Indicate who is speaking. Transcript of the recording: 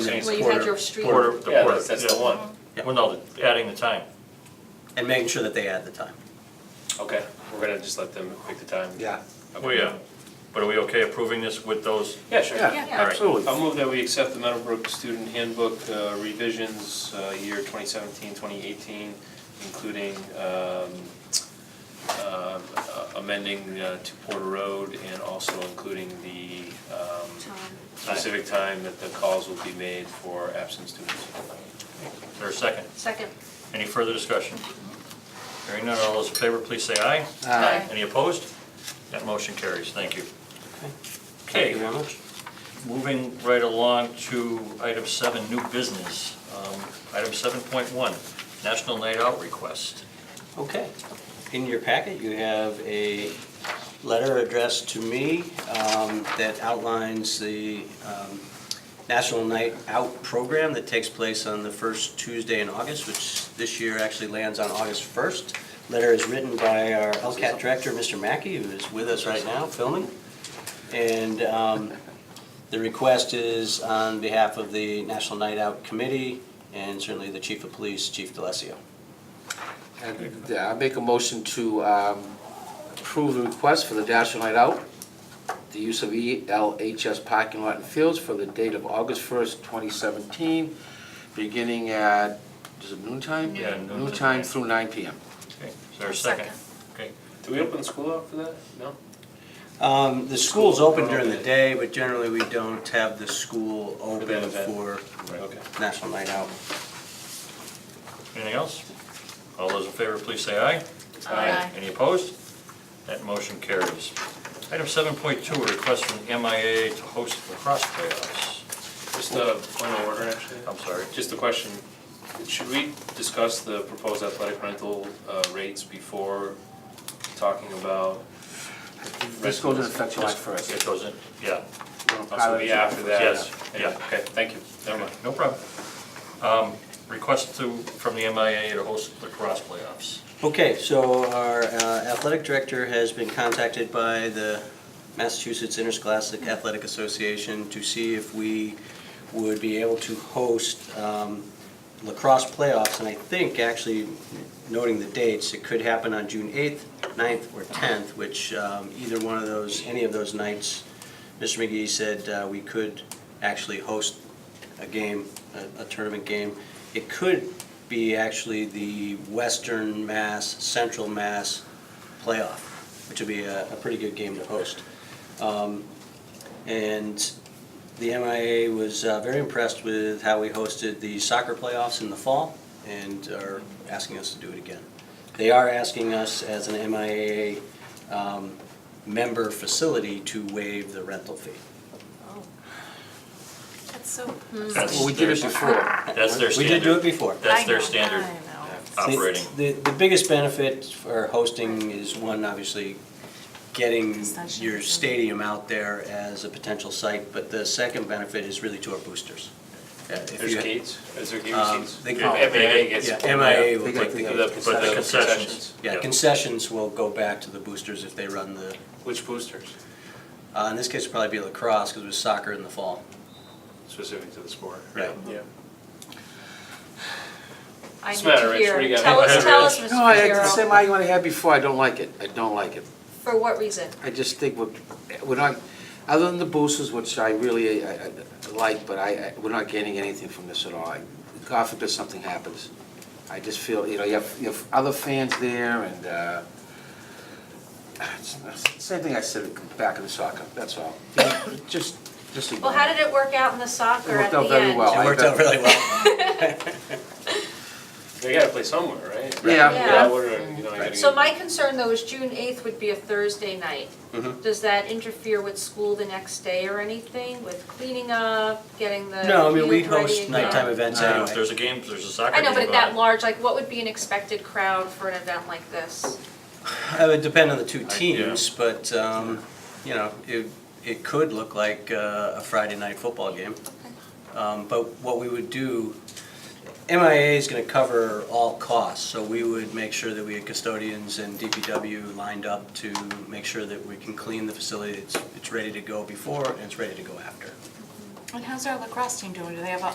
Speaker 1: Saying
Speaker 2: Well, you
Speaker 1: quarter-
Speaker 2: had your street.
Speaker 1: Quarter, the
Speaker 3: Yeah,
Speaker 1: quarter.
Speaker 3: that's- that's
Speaker 1: yeah.
Speaker 3: the one.
Speaker 4: Yeah.
Speaker 1: Well, no, the- adding the time.
Speaker 4: and making sure that they add the time.
Speaker 3: Okay, we're gonna just let them pick the time.
Speaker 5: Yeah.
Speaker 3: Okay.
Speaker 1: Well, Oh, yeah, but are we okay approving this with those?
Speaker 3: Yeah, sure.
Speaker 5: Yeah,
Speaker 2: Yeah.
Speaker 5: absolutely.
Speaker 3: I'll move that we accept the Meadowbrook Student Handbook uh, revisions, uh, year 2017, 2018, including um, um, uh, amending uh, to Porter Road and also including the um, specific time that the calls will be made for absent students.
Speaker 1: Is there a second?
Speaker 2: Second.
Speaker 1: Any further discussion? Hearing none, all those in favor, please say aye.
Speaker 2: Aye.
Speaker 1: Any opposed? That motion carries, thank you.
Speaker 4: Thank you very much.
Speaker 1: Moving right along to item seven, new business. Um, Item seven point one, National Night Out request.
Speaker 4: Okay. In your packet, you have a letter addressed to me um, that outlines the um, National Night Out program that takes place on the first Tuesday in August, which this year actually lands on August 1st. Letter is written by our LCAT director, Mr. Mackey, who is with us right now filming. And um, the request is on behalf of the National Night Out Committee and certainly the Chief of Police, Chief DeLassio.
Speaker 5: And uh, I make a motion to um, approve the request for the National Night Out, the use of E ELHS parking lot and fields for the date of August 1st, 2017, beginning at, is it noon time?
Speaker 1: Yeah, noon to
Speaker 5: Noon time
Speaker 1: nine.
Speaker 5: through 9 PM.
Speaker 1: Okay, is there a second?
Speaker 2: Second.
Speaker 1: Okay,
Speaker 3: Do we open the school up for that? No?
Speaker 4: Um, the school's open during the day, but generally we don't have the school
Speaker 3: that
Speaker 4: open
Speaker 3: event.
Speaker 4: for
Speaker 3: Okay.
Speaker 4: National Night Out.
Speaker 1: anything else? All those in favor, please say aye. Any opposed? That motion carries. Item seven point two, request from MIA to host lacrosse playoffs.
Speaker 3: Just uh, a point of order, actually.
Speaker 1: I'm sorry.
Speaker 3: Just a question, should we discuss the proposed athletic rental uh, rates before talking about,
Speaker 5: This goes into effect July
Speaker 1: It
Speaker 5: 1st.
Speaker 1: goes in, yeah,
Speaker 3: also be after that?
Speaker 1: Yes, yeah.
Speaker 3: Okay, thank you, never mind.
Speaker 1: no problem. Um, Request to, from the MIA to host lacrosse playoffs.
Speaker 4: Okay, so our uh, athletic director has been contacted by the Massachusetts Interscholastic Athletic Association to see if we would be able to host um, lacrosse playoffs. And I think, actually, noting the dates, it could happen on June 8th, 9th, or 10th, which um, either one of those, any of those nights, Mr. McGee said uh, we could actually host a game, a- a tournament game. It could be actually the Western Mass, Central Mass playoff, which would be a, a pretty good game to host. Um, And the MIA was uh, very impressed with how we hosted the soccer playoffs in the fall and are asking us to do it again. They are asking us as an MIA um, member facility to waive the rental fee.
Speaker 2: Oh,
Speaker 6: That's so.
Speaker 2: Mm.
Speaker 1: That's
Speaker 5: Well, we did it
Speaker 1: their-
Speaker 5: before.
Speaker 1: That's their
Speaker 4: We did do it
Speaker 1: standard,
Speaker 4: before.
Speaker 1: that's
Speaker 6: I
Speaker 1: their
Speaker 6: know,
Speaker 1: standard
Speaker 6: I know.
Speaker 4: The-
Speaker 1: operating.
Speaker 4: The, the biggest benefit for hosting is one, obviously, getting your stadium out there as a potential site, but the second benefit is really to our boosters. Uh, if
Speaker 3: There's
Speaker 4: you-
Speaker 3: gates, is there gate
Speaker 4: Um,
Speaker 3: receipts?
Speaker 4: they-
Speaker 3: Yeah, MIA gets.
Speaker 4: Yeah, MIA
Speaker 5: They
Speaker 4: will
Speaker 5: got
Speaker 4: take
Speaker 5: the-
Speaker 3: The-
Speaker 4: the,
Speaker 3: but the
Speaker 1: Concessions.
Speaker 3: concessions,
Speaker 4: yeah, concessions will go back to the boosters if they run the,
Speaker 3: which boosters,
Speaker 4: uh, in this case, it'd probably be lacrosse, because it was soccer in the fall.
Speaker 3: specific to the sport?
Speaker 4: Right.
Speaker 3: Yeah.
Speaker 2: I
Speaker 3: What's
Speaker 2: need
Speaker 3: the matter,
Speaker 2: to
Speaker 3: Rich? What do you
Speaker 2: hear.
Speaker 3: got?
Speaker 2: Tell us, tell us, Mr.
Speaker 5: No, I, it's the
Speaker 2: Fierro.
Speaker 5: same argument I had before, I don't like it, I don't like it.
Speaker 2: For what reason?
Speaker 5: I just think we're, we're not, other than the boosters, which I really, I, I I like, but I, I- we're not gaining anything from this at all. I- God forbid something happens. I just feel, you know, you have, you have other fans there and, uh, it's- it's the same thing I said back in the soccer, that's all. Just, just.
Speaker 2: Well, how did it work out in the soccer
Speaker 5: It
Speaker 2: at
Speaker 5: worked
Speaker 2: the end?
Speaker 5: out very well.
Speaker 4: It worked out really well.
Speaker 3: They gotta play somewhere, right?
Speaker 5: Yeah.
Speaker 2: Yeah.
Speaker 3: what are- you know, you gotta
Speaker 2: So
Speaker 3: get-
Speaker 2: my concern though is June eighth would be a Thursday night.
Speaker 4: Mhm.
Speaker 2: Does that interfere with school the next day or anything, with cleaning up, getting the
Speaker 4: No, I mean, we
Speaker 2: youth ready
Speaker 4: host
Speaker 2: and-
Speaker 4: nighttime events
Speaker 1: So If
Speaker 4: anyway.
Speaker 1: there's a game, if there's a soccer
Speaker 2: I
Speaker 1: game uh,
Speaker 2: know,
Speaker 1: on.
Speaker 2: but at that large, like, what would be an expected crowd for an event like this?
Speaker 4: It would depend on the two
Speaker 1: I- yeah.
Speaker 4: teams, but, um, you know, it, it could look like uh, a Friday night football game. Um, But what we would do, MIA is gonna cover all costs, so we would make sure that we had custodians and DPW lined up to make sure that we can clean the facility, it's, it's ready to go before and it's ready to go after.
Speaker 6: And how's our lacrosse team doing? Do they have a